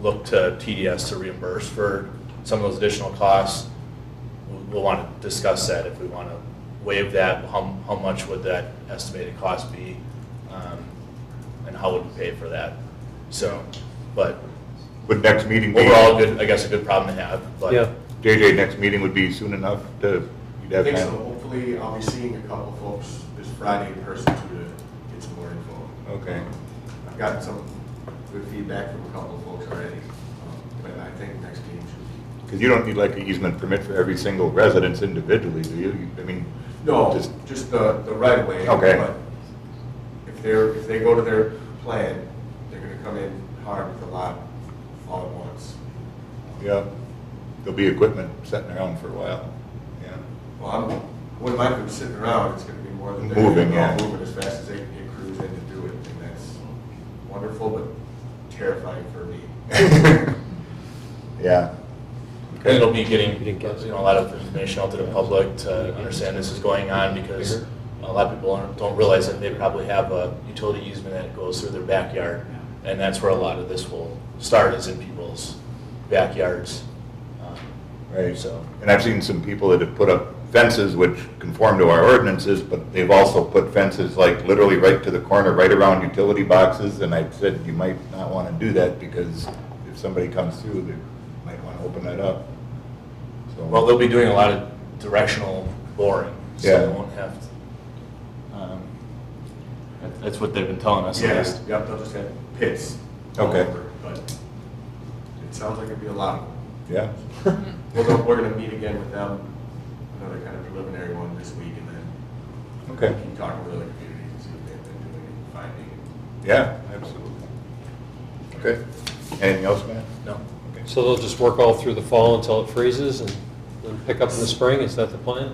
look to TDS to reimburse for some of those additional costs. We- We'll want to discuss that, if we want to waive that, how, how much would that estimated cost be? um, And how would we pay for that? So, but Would next meeting be? overall, good, I guess a good problem to have, but. Yeah. JJ, next meeting would be soon enough to, you'd I have think so, time? hopefully I'll be seeing a couple folks this Friday in person to get some more info. Okay. I've gotten some good feedback from a couple of folks already, um, but I think next meeting should Because you don't need like an easement permit for every single residence individually, do you? You- I mean. be. No, just- just the, the right way. Okay. but If they're, if they go to their plan, they're gonna come in hard with a lot all at once. Yeah, there'll be equipment sitting around for a while, yeah. Well, I'm, wouldn't mind them sitting around, it's gonna be more than. they're Moving, gonna be yeah. Moving as fast as they can get crews in to do it, and that's wonderful, but terrifying for me. Yeah. And it'll be getting, You you didn't get it. know, a lot of information out to the public to understand this is going on because a lot of people aren't- don't realize that they probably have a utility easement that goes through their backyard. And that's where a lot of this will start is in people's backyards. Um, Right, So, and I've seen some people that have put up fences which conform to our ordinances, but they've also put fences like literally right to the corner, right around utility boxes, and I said you might not want to do that because if somebody comes through, they might want to open that up. So- well, they'll be doing a lot of directional boring, so they Yeah. won't have to. um, that- That's what they've been telling us. at Yes, least. yep, they'll just have pits. all Okay. over, But it sounds like it'd be a lot. of them. Yeah, We'll go- We're gonna meet again with them, another kind of preliminary one this week, and then okay, keep talking with other communities and see if they've been doing any finding. yeah, absolutely. Okay, anything else, Matt? No. Okay. So they'll just work all through the fall until it freezes and then pick up in the spring? Is that the plan?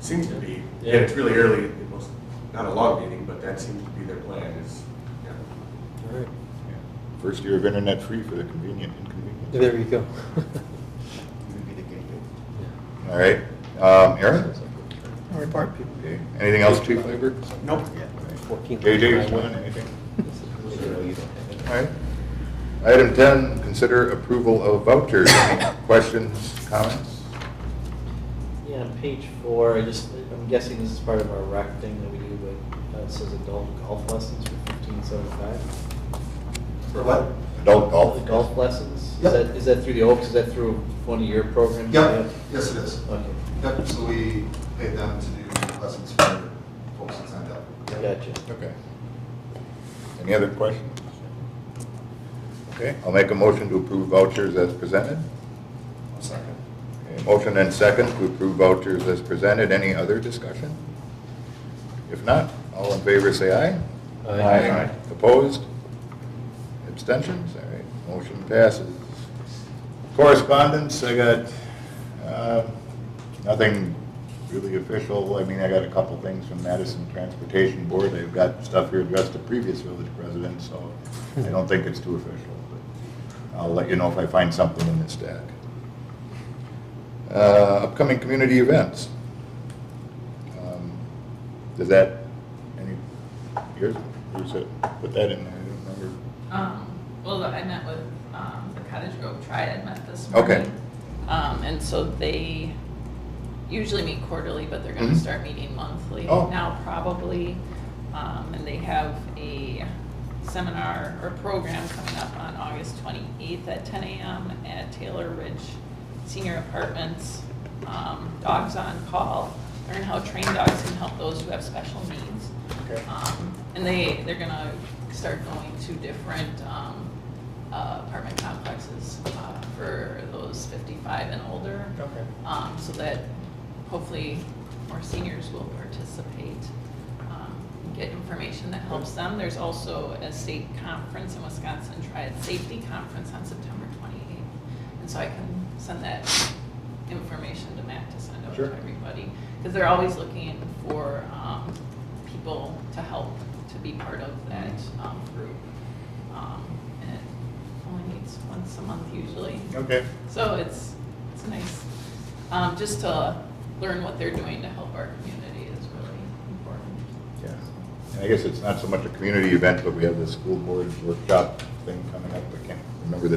Seems to be, Yeah. yeah, it's really early, it was not a long meeting, but that seems to be their plan is, yeah. All right. First year of internet free for the convenient inconvenient. There you go. All right, um, Aaron? No report, people. Okay. Anything else, Chief Labor? Nope. JJ, you want anything? All right. Item 10, consider approval of vouchers. Any questions, comments? Yeah, on page four, I just, I'm guessing this is part of our rec thing that we do, but uh, it says adult golf lessons for fifteen seventy-five. For what? Adult golf? Golf lessons? Is Yep. that, is that through the Oaks, is that through one of your programs? Yep, yes it is. Okay, Yep, so we paid them to do lessons for folks that signed up. gotcha. Okay. Any other questions? Okay, I'll make a motion to approve vouchers as presented. Second. Okay, Motion and second to approve vouchers as presented. Any other discussion? If not, all in favor say aye. Aye. Opposed? Abstentions? All right, motion passes. Correspondence, I got, uh, nothing really official. I mean, I got a couple things from Madison Transportation Board. They've got stuff here addressed to previous village presidents, so I don't think it's too official, but I'll let you know if I find something in this stack. Uh, Upcoming community events. Um, Does that, any, yours, yours, uh, put that in there, I don't remember. Um, well, I met with, um, the Cottage Grove Triad met this morning. Okay. Um, and so they usually meet quarterly, but they're gonna Mhm. start meeting monthly Oh. now probably. Um, and they have a seminar or program coming up on August twenty-eighth at ten AM at Taylor Ridge Senior Apartments. Um, dogs on call, learn how trained dogs can help those who have special needs. Okay. Um, And they, they're gonna start going to different um, uh, apartment complexes uh, for those 55 and older. Okay. Um, So that hopefully more seniors will participate, um, get information that helps them. There's also a state conference in Wisconsin, Triad Safety Conference on September 28th. And so I can send that information to Matt to send out to Sure. everybody. Because they're always looking for um, people to help, to be part of that um, group. Um, And it only meets once a month usually. Okay. So it's, it's nice, um, just to learn what they're doing to help our community is really important. Yeah, and I guess it's not so much a community event, but we have the school board workshop thing coming up. I can't remember the